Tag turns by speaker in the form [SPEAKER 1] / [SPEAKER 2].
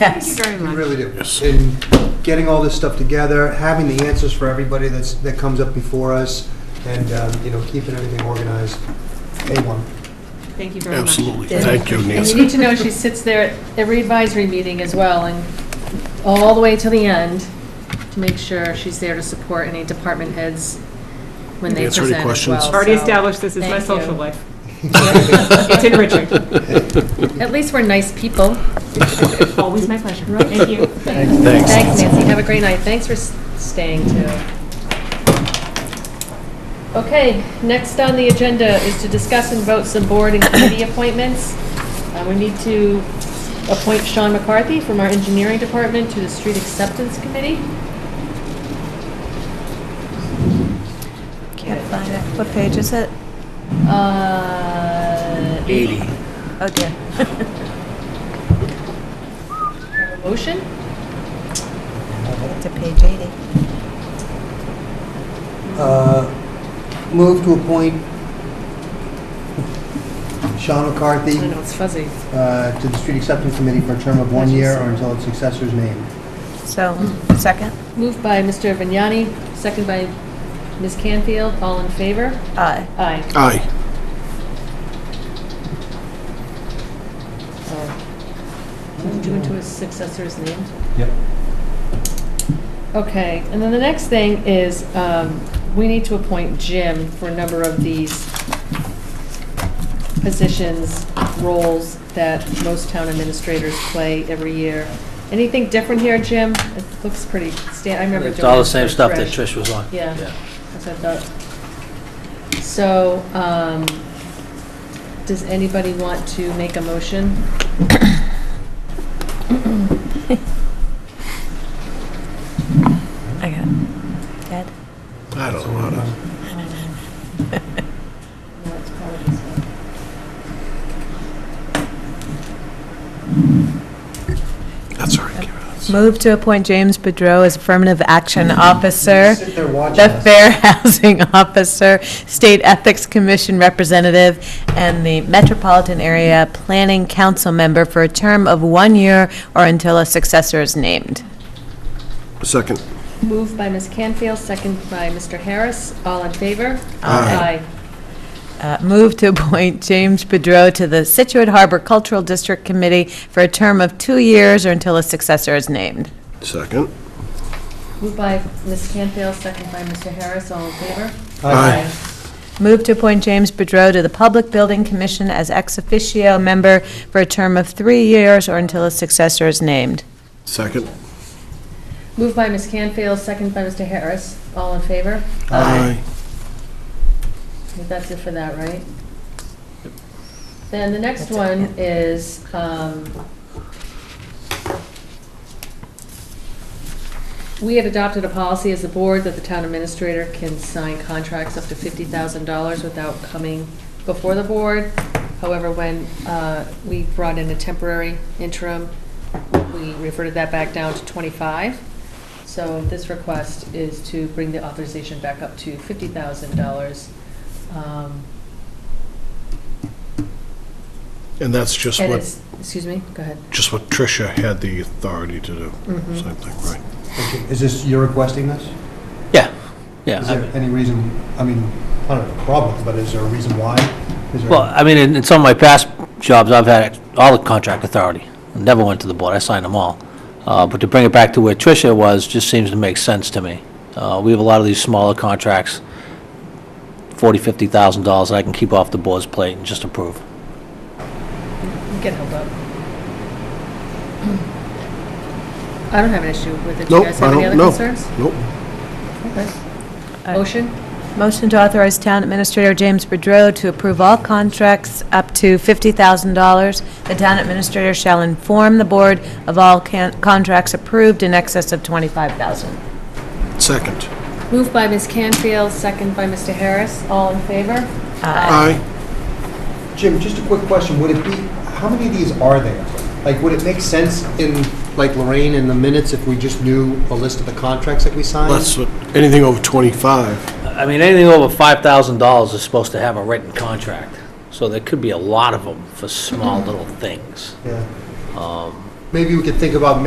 [SPEAKER 1] Yes.
[SPEAKER 2] Very
[SPEAKER 3] You
[SPEAKER 2] much.
[SPEAKER 3] really do. And getting all this stuff together, having the answers for everybody that's, that comes up before us, and, um, you know, keeping everything organized, A1.
[SPEAKER 2] Thank you very much.
[SPEAKER 4] Absolutely. Thank you,
[SPEAKER 5] And you
[SPEAKER 4] Nancy.
[SPEAKER 5] need to know she sits there at every advisory meeting as well, and all the way till the end, to make sure she's there to support any department heads when they
[SPEAKER 4] Answer any
[SPEAKER 5] present as
[SPEAKER 4] questions?
[SPEAKER 5] well.
[SPEAKER 2] Already
[SPEAKER 5] so-
[SPEAKER 2] established this is my
[SPEAKER 5] Thank you.
[SPEAKER 2] social life. It's enriching.
[SPEAKER 5] At least we're nice people.
[SPEAKER 2] Always my pleasure. Thank you.
[SPEAKER 5] Thanks, Nancy, have a great night, thanks for s- staying too. Okay, next on the agenda is to discuss and vote some board and committee appointments. Uh, We need to appoint Sean McCarthy from our engineering department to the street acceptance committee.
[SPEAKER 1] Can't find it. What page is it?
[SPEAKER 5] Uh,
[SPEAKER 4] Eighty.
[SPEAKER 1] Oh dear.
[SPEAKER 5] Motion?
[SPEAKER 1] To page 80.
[SPEAKER 3] Uh, Move to appoint Sean
[SPEAKER 5] I
[SPEAKER 3] McCarthy
[SPEAKER 5] know, it's fuzzy.
[SPEAKER 3] uh, to the Street Acceptance Committee for a term of one year or until its successor's named.
[SPEAKER 1] So, second?
[SPEAKER 5] Moved by Mr. Vignani, second by Ms. Canfield, all in favor?
[SPEAKER 1] Aye.
[SPEAKER 5] Aye.
[SPEAKER 4] Aye.
[SPEAKER 5] Due to his successor's name.
[SPEAKER 3] Yep.
[SPEAKER 5] Okay, and then the next thing is, um, we need to appoint Jim for a number of these positions, roles that most town administrators play every year. Anything different here, Jim? It looks pretty sta, I remember doing.
[SPEAKER 6] It's all the
[SPEAKER 5] this
[SPEAKER 6] same
[SPEAKER 5] for
[SPEAKER 6] stuff that Trish was on.
[SPEAKER 5] Yeah. That's what I thought. So, um, does anybody want to make a motion?
[SPEAKER 1] I got it. Ted?
[SPEAKER 4] I don't know how to,
[SPEAKER 5] No, it's probably this one.
[SPEAKER 4] that's all right, give it to us.
[SPEAKER 1] Move to appoint James Bedrow as Affirmative Action Officer,
[SPEAKER 3] Sit there watching
[SPEAKER 1] the
[SPEAKER 3] us.
[SPEAKER 1] Fair Housing Officer, State Ethics Commission Representative, and the Metropolitan Area Planning Council Member for a term of one year or until a successor is named.
[SPEAKER 4] Second.
[SPEAKER 5] Moved by Ms. Canfield, second by Mr. Harris. All in favor?
[SPEAKER 4] Aye.
[SPEAKER 1] Uh, Move to appoint James Bedrow to the Situate Harbor Cultural District Committee for a term of two years or until a successor is named.
[SPEAKER 4] Second.
[SPEAKER 5] Moved by Ms. Canfield, second by Mr. Harris. All in favor?
[SPEAKER 4] Aye.
[SPEAKER 1] Move to appoint James Bedrow to the Public Building Commission as ex officio member for a term of three years or until a successor is named.
[SPEAKER 4] Second.
[SPEAKER 5] Moved by Ms. Canfield, second by Mr. Harris. All in favor?
[SPEAKER 4] Aye.
[SPEAKER 5] That's it for that, right? Then the next one is, um, we had adopted a policy as a board that the town administrator can sign contracts up to fifty thousand dollars without coming before the board. However, when, uh, we brought in a temporary interim, we reverted that back down to twenty-five. So this request is to bring the authorization back up to fifty thousand dollars um,
[SPEAKER 4] And that's just
[SPEAKER 5] And
[SPEAKER 4] what,
[SPEAKER 5] it's, excuse me, go ahead.
[SPEAKER 4] just what Tricia had the authority to do. Same thing, right?
[SPEAKER 3] Okay, Is this, you're requesting this?
[SPEAKER 6] Yeah, yeah.
[SPEAKER 3] Is
[SPEAKER 6] I
[SPEAKER 3] there
[SPEAKER 6] mean-
[SPEAKER 3] any reason, I mean, I don't have a problem, but is there a reason why? Is there-
[SPEAKER 6] Well, I mean, in in some of my past jobs, I've had all the contract authority. Never went to the board, I signed them all. Uh, But to bring it back to where Tricia was, just seems to make sense to me. Uh, We have a lot of these smaller contracts, $40,000, $50,000 that I can keep off the board's plate and just approve.
[SPEAKER 5] You can hold up. I don't have an issue with it. Do you
[SPEAKER 4] Nope,
[SPEAKER 5] guys
[SPEAKER 4] I
[SPEAKER 5] have any
[SPEAKER 4] don't-
[SPEAKER 5] other
[SPEAKER 4] no.
[SPEAKER 5] concerns?
[SPEAKER 4] Nope.
[SPEAKER 1] Aye.
[SPEAKER 5] Motion?
[SPEAKER 1] Motion to authorize Town Administrator James Bedrow to approve all contracts up to $50,000. The Town Administrator shall inform the Board of all can- contracts approved in excess of $25,000.
[SPEAKER 4] Second.
[SPEAKER 5] Moved by Ms. Canfield, second by Mr. Harris. All in favor?
[SPEAKER 4] Aye.
[SPEAKER 3] Jim, just a quick question, would it be, how many of these are there? Like, would it make sense in, like Lorraine, in the minutes, if we just knew a list of the contracts that we signed?
[SPEAKER 4] That's what, anything over 25.
[SPEAKER 6] I mean, anything over $5,000 is supposed to have a written Mm-hmm. contract. So there could be a lot of them for small little things.
[SPEAKER 3] Yeah. maybe we could think about